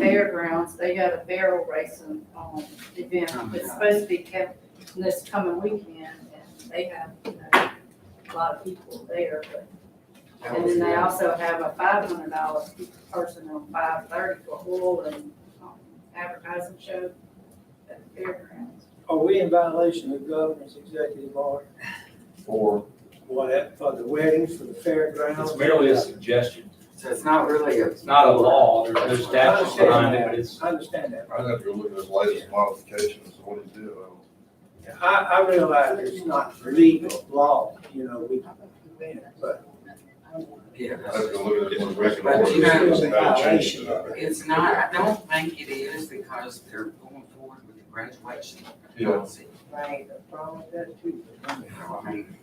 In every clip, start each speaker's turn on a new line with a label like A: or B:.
A: fairgrounds, they had a barrel racing, um, event,
B: Oh,
A: it's supposed to be kept this coming weekend, and they have, you know, a lot of people there, but
C: That
A: And
C: was
A: then they
C: good.
A: also have a five hundred dollar person on five thirty for oil and um, advertising show at the fairgrounds.
B: Are we in violation of governor's executive order?
D: for,
B: What, for the weddings, for the fairgrounds?
D: it's merely a suggestion.
C: So it's not really a.
D: It's not a law, there's no
B: I understand
D: statute behind it, but
B: that,
D: it's,
B: I understand that.
E: I'd have to go look at his latest modifications, of what he did.
B: I, I realize it's not legal law, you know, we, but
C: Yeah,
E: I'd have to go look at his record.
C: But you know-
E: It's about changing it.
C: it's not, I don't think it is because they're going forward with the graduation
E: Yeah.
C: policy.
B: Right, the problem with that too.
C: You know, I mean,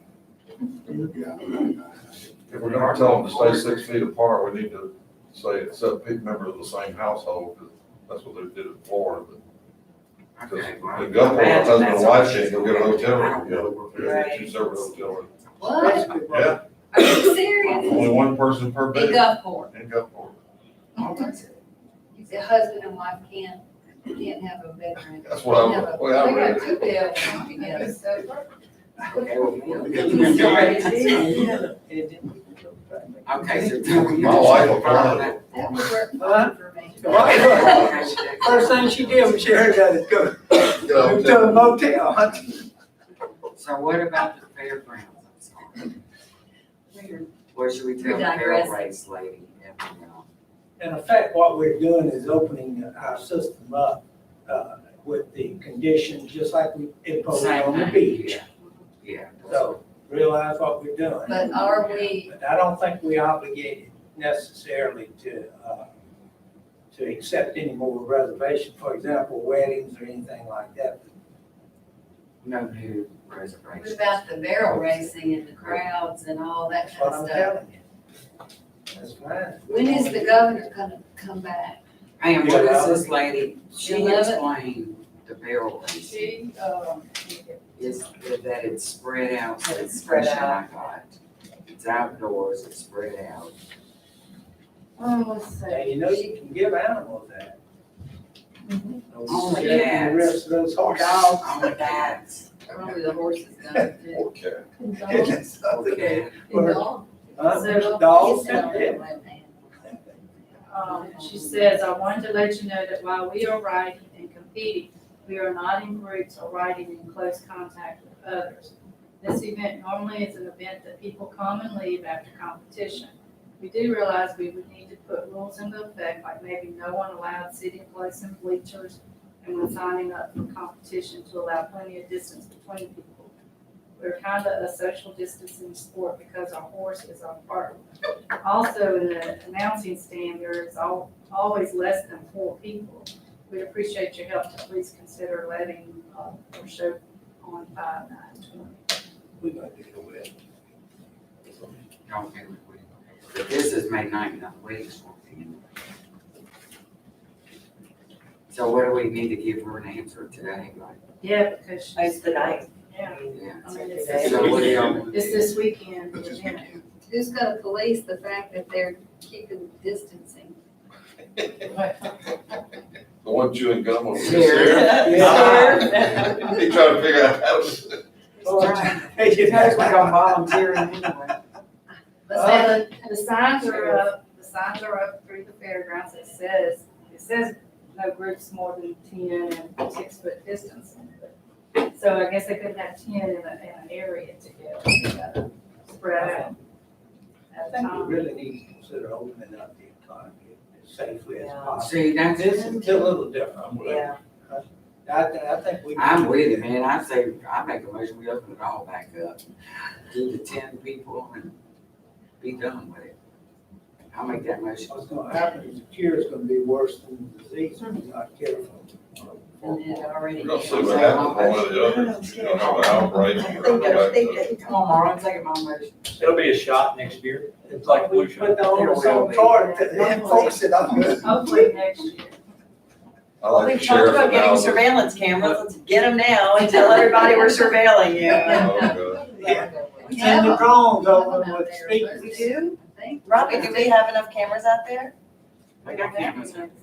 E: If we're gonna tell them to stay six feet apart, we need to say except big members of the same household, because that's what they did in Florida. Because
C: okay, well,
E: the governor,
C: imagine
E: husband
C: that's
E: and
C: all
E: wife
C: she's
E: can't go get a
C: doing. I
E: hotel room
C: don't
E: together,
C: know.
E: we're gonna get two separate hotel rooms.
F: What?
E: Yeah,
F: Are you serious?
E: only one person per
F: Big
E: bed
F: up for
E: in Gulfport.
F: You said husband and wife can't, can't have a bedroom.
E: That's what I,
F: Have
E: the
F: a-
E: way I read
F: They got two
E: it.
F: bedrooms together, so.
C: Okay, well,
F: I'm sorry.
C: Okay, so tell me.
E: My wife will
F: That would work
B: Huh?
F: fine for me.
B: First thing she did when she heard that is go
E: Get a
B: go
E: hotel
B: to a
E: room.
B: motel.
C: So what about the fairgrounds? I'm sorry. Where should we tell the
F: We're digressing.
C: fair race lady? everything else?
B: In effect, what we're doing is opening our system up, uh, with the conditions, just like we imposed on the
C: Same.
B: beach.
C: Yeah.
B: So realize what we're doing.
F: But uh, are we-
B: But I don't think we obligated necessarily to, uh, to accept any more reservation, for example, weddings or anything like that.
C: No new
F: What
C: reservations.
F: about the barrel racing and the crowds and all that
B: That's
F: kind
B: what
F: of
B: I'm
F: stuff?
B: telling you. That's fine.
F: When is the governor gonna come back?
C: Ma'am, what is this lady, she
F: Eleven.
C: explained the barrel race,
A: She, um,
C: is that it's spread out, so it's
F: Spread
C: fresh I got. It's outdoors, it's spread out.
A: um,
F: Oh,
A: let's see,
B: Now, you know you can give animals that.
F: Mm-hmm.
C: Oh,
B: Shaking
C: yes.
B: The rest of those horses.
F: Dogs.
C: Oh, that's,
F: Probably the horses gonna do.
E: Or cat.
F: Dogs.
C: okay.
B: Or-
F: Dogs.
B: Huh? There's uh, dogs, yeah.
A: um, she says, I wanted to let you know that while we are riding and competing, we are not in groups or riding in close contact with others. This event normally is an event that people come and leave after competition. We do realize we would need to put rules into effect, like maybe no one allowed sitting close in bleachers and when signing up for competition to allow plenty of distance between people. We're kind of a social distancing sport because our horse is our partner. Also, in the announcing stand, there is al- always less than four people. We'd appreciate your help to please consider letting, uh, our show on five nine twenty.
B: We're gonna do the wedding.
C: Don't get it, we- But this is May ninth, not weeks. So what do we need to give her an answer today, like,
A: Yeah, because she's.
G: It's the ninth.
A: Yeah,
C: yeah?
A: I mean, it's
G: It's
A: this
C: So what do
A: weekend,
C: y'all want to
A: it's
C: do?
A: this weekend.
E: That's just
A: yeah.
E: weekend.
F: Who's gonna police the fact that they're keeping distancing?
E: The one chewing gum over
C: Here.
E: there. He trying to figure out how to.
B: Hey, you know, it's like a mom.
C: volunteering anyway.
F: Let's
B: Uh,
E: Oh.
F: have a-
A: And the signs are up, the signs are up through the fairgrounds, it says, it says no groups more than ten and six foot distance. So I guess they couldn't have ten in a, in an area to go, spread out.
B: I think we really need to consider opening up the economy as safely as
G: Yeah.
B: possible.
C: See, that's,
B: This is a little different.
E: I'm with it.
G: Yeah,
B: I, thi- I think we.
C: I'm with it, man, I say, I make a motion, we open it all back up, do the ten people and be done with it. I'll make that motion.
B: What's gonna happen is the cure is gonna be worse than the disease if we're not careful.
G: and it
A: uh,
G: already.
E: We're gonna see
G: is.
E: what happens with one of the others. You're gonna have an outbreak.
G: I
E: We're
G: think
E: gonna
G: that, I
E: go back
G: think
E: to.
G: that,
C: Come on, Marlon, take it my motion.
D: it'll be a shot next year. It's like
B: We
D: flu shot.
B: Put the onus
C: There will
B: on
C: be.
B: toward to enforce it. I'm good.
A: Hopefully next year.
E: I like
G: we've
E: the
G: talked
E: sheriff
G: about getting
E: analogy.
G: surveillance cameras, let's get them now and tell everybody we're surveilling you.
E: Oh, God.
F: We
B: Send the
F: have them.
B: drones over
F: We have them out
B: with
F: there,
B: speakers.
F: but-
G: We do?
F: I think.
G: Robbie, do we have enough cameras out there?
C: They got cameras.